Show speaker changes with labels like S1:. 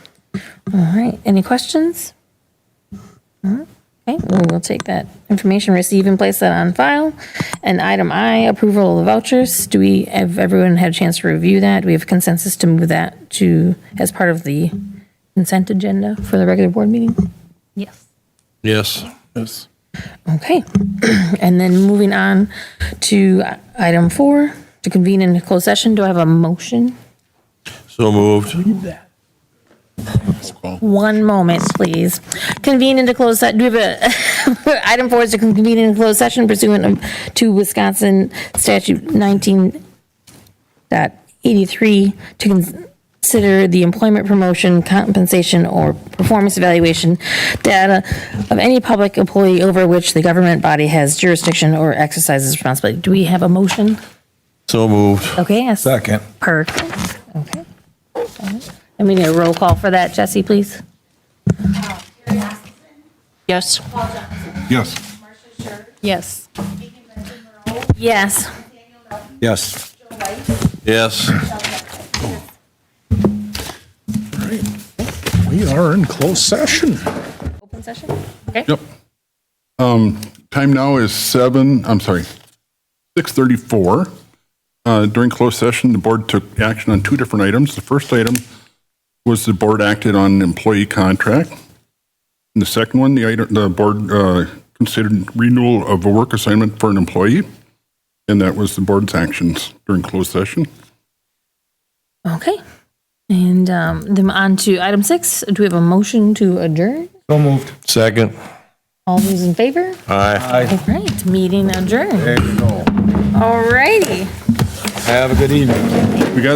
S1: All right, any questions? No? Okay, well, we'll take that information, receive and place that on file. And item I, approval of vouchers. Do we, have everyone had a chance to review that? Do we have consensus to move that to, as part of the consent agenda for the regular board meeting?
S2: Yes.
S3: Yes.
S4: Yes.
S1: Okay, and then moving on to item four, to convene in a closed session, do I have a motion?
S3: So moved.
S1: One moment, please. Convene into closed, se- do we have a, item four is to convene in closed session pursuant of- to Wisconsin statute 19.83 to consider the employment promotion, compensation, or performance evaluation data of any public employee over which the government body has jurisdiction or exercises responsibility. Do we have a motion?
S3: So moved.
S1: Okay, yes.
S4: Second.
S1: Perfect, okay. I mean, a roll call for that, Jesse, please.
S2: Yes.
S4: Yes.
S2: Yes.
S1: Yes.
S4: Yes.
S3: Yes.
S4: We are in closed session.
S1: Open session?
S5: Yep. Um, Time now is seven, I'm sorry, 6:34. Uh, During closed session, the board took action on two different items. The first item was the board acted on an employee contract. And the second one, the item, the board uh, considered renewal of a work assignment for an employee. And that was the board's actions during closed session.
S1: Okay. And um, then on to item six, do we have a motion to adjourn?
S4: So moved.
S3: Second.
S1: All those in favor?
S3: Aye.
S1: All right, meeting adjourned.
S4: There you go.
S1: All righty.
S4: Have a good evening.
S5: We got